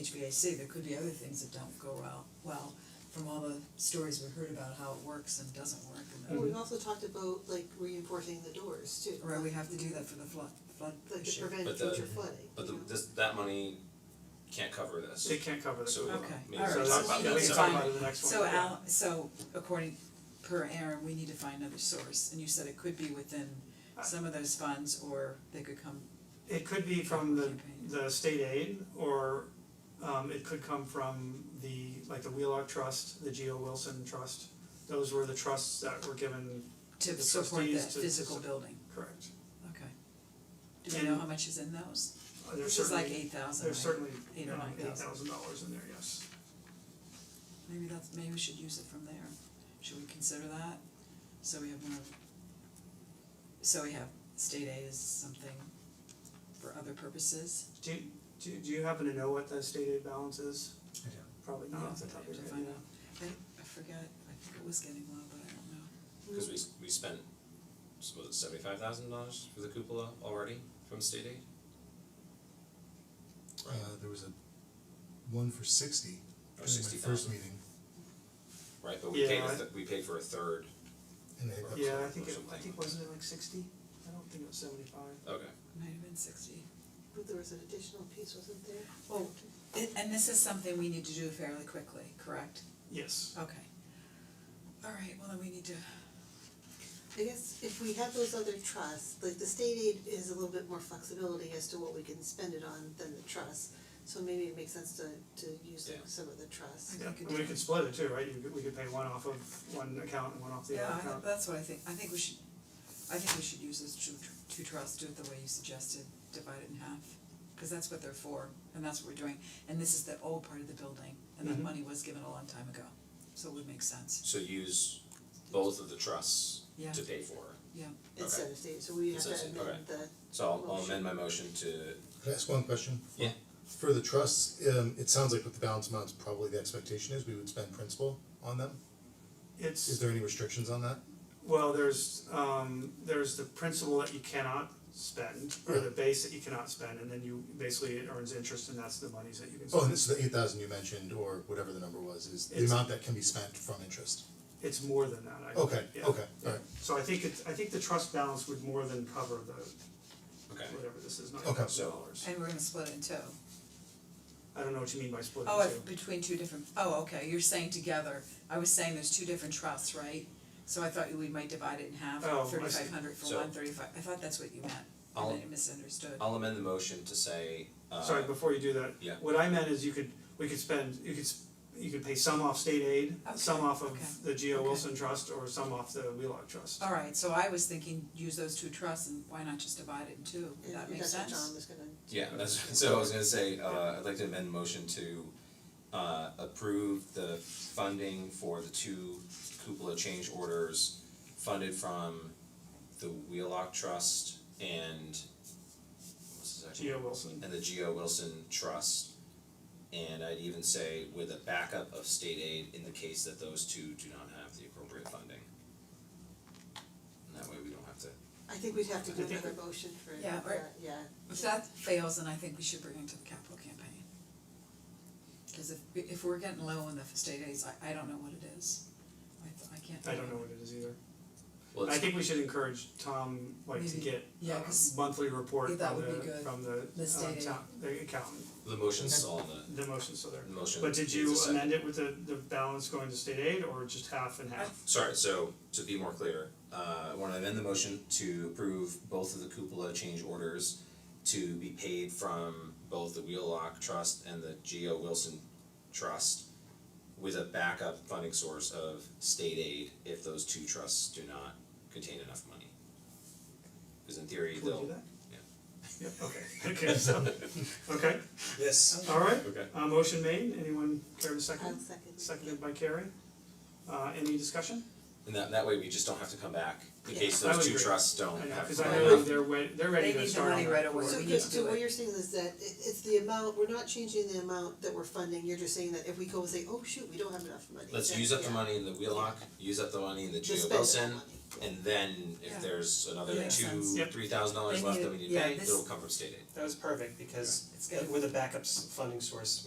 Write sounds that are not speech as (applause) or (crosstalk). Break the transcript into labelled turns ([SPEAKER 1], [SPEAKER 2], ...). [SPEAKER 1] HVAC, there could be other things that don't go well, well, from all the stories we've heard about how it works and doesn't work and
[SPEAKER 2] Well,
[SPEAKER 1] then,
[SPEAKER 2] we've also talked about like reinforcing the doors too.
[SPEAKER 1] right, we have to do that for the flood, flood
[SPEAKER 2] Mm-hmm. Like to
[SPEAKER 1] issue.
[SPEAKER 2] prevent
[SPEAKER 3] But the-
[SPEAKER 2] future flooding,
[SPEAKER 3] But the,
[SPEAKER 2] you know?
[SPEAKER 3] this, that money can't cover this.
[SPEAKER 4] It can't cover the.
[SPEAKER 3] So,
[SPEAKER 1] Okay,
[SPEAKER 3] maybe
[SPEAKER 1] all right,
[SPEAKER 3] we can
[SPEAKER 1] so
[SPEAKER 3] talk about
[SPEAKER 1] we
[SPEAKER 3] that
[SPEAKER 1] need to
[SPEAKER 3] separately.
[SPEAKER 4] talk about it in the next one.
[SPEAKER 1] So
[SPEAKER 4] yeah.
[SPEAKER 1] Al, so according, per Aaron, we need to find another source, and you said it could be within
[SPEAKER 2] Uh.
[SPEAKER 1] some of those funds, or they could come,
[SPEAKER 4] It could be from the
[SPEAKER 1] Campaign.
[SPEAKER 4] the state aid or um it could come from the like the Wheelock Trust, the Geo Wilson Trust. Those were the trusts that were given,
[SPEAKER 1] to
[SPEAKER 4] The
[SPEAKER 1] support that
[SPEAKER 4] trustees to-
[SPEAKER 1] physical building,
[SPEAKER 4] correct.
[SPEAKER 1] okay. Do we know
[SPEAKER 4] And-
[SPEAKER 1] how much is in those?
[SPEAKER 4] Uh, There's
[SPEAKER 1] This is like
[SPEAKER 4] certainly,
[SPEAKER 1] eight thousand,
[SPEAKER 4] there's certainly
[SPEAKER 1] Eight or nine
[SPEAKER 4] eight
[SPEAKER 1] thousand.
[SPEAKER 4] thousand dollars in there, yes.
[SPEAKER 1] Maybe that's, maybe we should use it from there, should we consider that? So we have more, so we have state aid is something for other purposes,
[SPEAKER 4] Do you, do you- do you happen to know what the state aid balance is?
[SPEAKER 5] I don't.
[SPEAKER 4] Probably
[SPEAKER 1] yeah,
[SPEAKER 4] not off
[SPEAKER 1] to
[SPEAKER 4] the top of your head.
[SPEAKER 1] find out, I I forgot, I think it was getting low, but I don't know.
[SPEAKER 3] Cause we s- we spent, s- was it seventy five thousand dollars for the cupola already from state aid?
[SPEAKER 5] Uh, there was a one for sixty
[SPEAKER 3] Or
[SPEAKER 5] during my
[SPEAKER 3] Oh, sixty
[SPEAKER 5] first
[SPEAKER 3] thousand,
[SPEAKER 5] meeting,
[SPEAKER 3] right, but we paid a
[SPEAKER 4] Yeah, I-
[SPEAKER 3] th- we paid for a third,
[SPEAKER 5] and they,
[SPEAKER 3] Or
[SPEAKER 4] Yeah, I
[SPEAKER 3] some-
[SPEAKER 4] think
[SPEAKER 3] or
[SPEAKER 4] it, I
[SPEAKER 3] something.
[SPEAKER 4] think wasn't it like sixty? I don't think it was seventy five.
[SPEAKER 3] okay,
[SPEAKER 1] Might have been sixty.
[SPEAKER 2] But there was an additional piece, wasn't there?
[SPEAKER 1] Well, a- and this is something we need to do fairly quickly, correct?
[SPEAKER 4] Yes.
[SPEAKER 1] Okay. Alright, well then we need to,
[SPEAKER 2] I guess if we have those other trusts, like the state aid is a little bit more flexibility as to what we can spend it on than the trust. So maybe it makes sense to to use like
[SPEAKER 3] Yeah.
[SPEAKER 2] some of the
[SPEAKER 1] I
[SPEAKER 2] trusts.
[SPEAKER 4] Yeah,
[SPEAKER 1] think
[SPEAKER 4] and
[SPEAKER 1] it
[SPEAKER 4] we
[SPEAKER 1] did.
[SPEAKER 4] could split it too, right? You could, we could pay one off of one account and one off the
[SPEAKER 1] yeah,
[SPEAKER 4] other
[SPEAKER 1] I-
[SPEAKER 4] account.
[SPEAKER 1] that's what I think, I think we should, I think we should use those two tr- two trusts, do it the way you suggested, divide it in half. Cause that's what they're for, and that's what we're doing, and this is the old part of the building, and that
[SPEAKER 4] Mhm.
[SPEAKER 1] money was given a long time ago, so it would make sense,
[SPEAKER 3] so use both of the trusts
[SPEAKER 1] yeah,
[SPEAKER 3] to pay for it.
[SPEAKER 1] yeah.
[SPEAKER 2] Instead of state, so we have to
[SPEAKER 3] Instead of
[SPEAKER 2] amend
[SPEAKER 3] state,
[SPEAKER 2] the
[SPEAKER 3] okay. So I'll I'll amend my motion to,
[SPEAKER 5] Can I ask one question?
[SPEAKER 3] Yeah.
[SPEAKER 5] For the trusts, um, it sounds like with the balance amounts, probably the expectation is we would spend principal on them. Is
[SPEAKER 4] It's,
[SPEAKER 5] there any restrictions on that?
[SPEAKER 4] well, there's um there's the principal that you cannot spend or the base that you cannot spend and then you basically it earns interest and that's the monies that you can spend.
[SPEAKER 5] Oh, and this is the eight thousand you mentioned, or whatever the number was, is the
[SPEAKER 4] It's-
[SPEAKER 5] amount that can be spent from interest.
[SPEAKER 4] It's more than that, I
[SPEAKER 5] Okay,
[SPEAKER 4] yeah.
[SPEAKER 5] okay, alright,
[SPEAKER 4] So I think it's, I think the trust balance would more than cover the
[SPEAKER 3] okay,
[SPEAKER 4] whatever this is, nine
[SPEAKER 5] Okay.
[SPEAKER 4] thousand dollars.
[SPEAKER 1] And we're gonna split it in two.
[SPEAKER 4] I don't know what you mean by split
[SPEAKER 1] Oh,
[SPEAKER 4] the
[SPEAKER 1] if
[SPEAKER 4] two.
[SPEAKER 1] between two different, oh, okay, you're saying together, I was saying there's two different trusts, right? So I thought we might divide it in half,
[SPEAKER 4] Oh, I see.
[SPEAKER 1] thirty five hundred for
[SPEAKER 3] So-
[SPEAKER 1] one, thirty five, I thought that's what you meant,
[SPEAKER 3] I'll-
[SPEAKER 1] and I misunderstood.
[SPEAKER 3] I'll amend the motion to say, uh,
[SPEAKER 4] Sorry, before you do that,
[SPEAKER 3] yeah.
[SPEAKER 4] what I meant is you could, we could spend, you could, s- you could pay some off state aid, some
[SPEAKER 1] Okay,
[SPEAKER 4] off
[SPEAKER 1] okay,
[SPEAKER 4] of the Geo
[SPEAKER 1] okay. Uh,
[SPEAKER 4] Wilson Trust or some off the Wheelock Trust.
[SPEAKER 1] Alright, so I was thinking, use those two trusts and why not just divide it in two, that makes
[SPEAKER 2] that's what
[SPEAKER 1] sense?
[SPEAKER 2] John was gonna
[SPEAKER 3] Yeah, that's, (laughs) so I was gonna say, uh, I'd like to amend the motion to, uh, approve the funding for the two cupola change orders funded from the Wheelock Trust and what's the second?
[SPEAKER 4] Geo Wilson.
[SPEAKER 3] And the Geo Wilson Trust. And I'd even say with a backup of state aid in the case that those two do not have the appropriate funding. And that way we don't have to,
[SPEAKER 2] I think we'd have to do
[SPEAKER 4] I think
[SPEAKER 2] another motion for that,
[SPEAKER 1] Yeah,
[SPEAKER 2] yeah.
[SPEAKER 1] or- If that fails, then I think we should bring it to the capital campaign. Cause if if we're getting low on the state aids, I I don't know what it is, I th- I can't.
[SPEAKER 4] I don't know what it is either.
[SPEAKER 3] well,
[SPEAKER 4] I
[SPEAKER 3] it's,
[SPEAKER 4] think we should encourage Tom, like, to
[SPEAKER 1] Maybe.
[SPEAKER 4] get
[SPEAKER 1] Yeah,
[SPEAKER 4] a
[SPEAKER 1] 'cause-
[SPEAKER 4] monthly report
[SPEAKER 1] Yeah, that
[SPEAKER 4] from
[SPEAKER 1] would be
[SPEAKER 4] the,
[SPEAKER 1] good.
[SPEAKER 4] from the,
[SPEAKER 1] The
[SPEAKER 4] uh,
[SPEAKER 1] state
[SPEAKER 4] town, the accountant,
[SPEAKER 3] the motion's all in the,
[SPEAKER 4] the motion, so there.
[SPEAKER 3] the motion
[SPEAKER 4] But did
[SPEAKER 3] needs a
[SPEAKER 4] you
[SPEAKER 3] second.
[SPEAKER 4] amend it with the, the balance going to state aid or just half and half?
[SPEAKER 3] Sorry, so to be more clear, uh, I wanna amend the motion to approve both of the cupola change orders to be paid from both the Wheelock Trust and the Geo Wilson Trust with a backup funding source of state aid if those two trusts do not contain enough money. Cause in theory,
[SPEAKER 4] Can we do
[SPEAKER 3] they'll,
[SPEAKER 4] that?
[SPEAKER 3] yeah.
[SPEAKER 4] Yeah, okay, (laughs) okay, so, okay,
[SPEAKER 3] yes,
[SPEAKER 4] alright,
[SPEAKER 3] okay,
[SPEAKER 4] uh, motion made, anyone care to
[SPEAKER 2] I'll
[SPEAKER 4] second?
[SPEAKER 2] second.
[SPEAKER 4] Seconded by Carrie, uh, any discussion?
[SPEAKER 3] and that that way we just don't have to come back in
[SPEAKER 2] Yeah.
[SPEAKER 3] case
[SPEAKER 4] I would
[SPEAKER 3] those two
[SPEAKER 4] agree.
[SPEAKER 3] trusts don't
[SPEAKER 4] I know,
[SPEAKER 3] have
[SPEAKER 4] cause I
[SPEAKER 3] money.
[SPEAKER 4] know they're wa- they're ready
[SPEAKER 1] They
[SPEAKER 4] to
[SPEAKER 1] need the
[SPEAKER 4] start on
[SPEAKER 1] money
[SPEAKER 4] that
[SPEAKER 1] right away.
[SPEAKER 4] board.
[SPEAKER 2] So
[SPEAKER 1] we need
[SPEAKER 2] Chris,
[SPEAKER 1] to
[SPEAKER 2] so
[SPEAKER 1] do
[SPEAKER 2] what
[SPEAKER 1] it.
[SPEAKER 2] you're saying is that it it's the amount, we're not changing the amount that we're funding, you're just saying that if we go and say, oh shoot, we don't have enough money.
[SPEAKER 3] Let's
[SPEAKER 2] then,
[SPEAKER 3] use up the
[SPEAKER 2] yeah,
[SPEAKER 3] money in the Wheelock, use up the money in the
[SPEAKER 2] just
[SPEAKER 3] Geo
[SPEAKER 2] spend that
[SPEAKER 3] Wilson,
[SPEAKER 2] money.
[SPEAKER 3] And then
[SPEAKER 1] Yeah.
[SPEAKER 3] if there's another
[SPEAKER 1] Yeah.
[SPEAKER 3] two,
[SPEAKER 1] Makes
[SPEAKER 4] sense.
[SPEAKER 3] three thousand dollars
[SPEAKER 1] They
[SPEAKER 3] left
[SPEAKER 1] need-
[SPEAKER 3] that we need to
[SPEAKER 1] yeah,
[SPEAKER 3] pay,
[SPEAKER 1] this-
[SPEAKER 3] it'll come from state aid.
[SPEAKER 6] That was perfect because uh,
[SPEAKER 1] It's good.
[SPEAKER 6] with a backup s- funding source,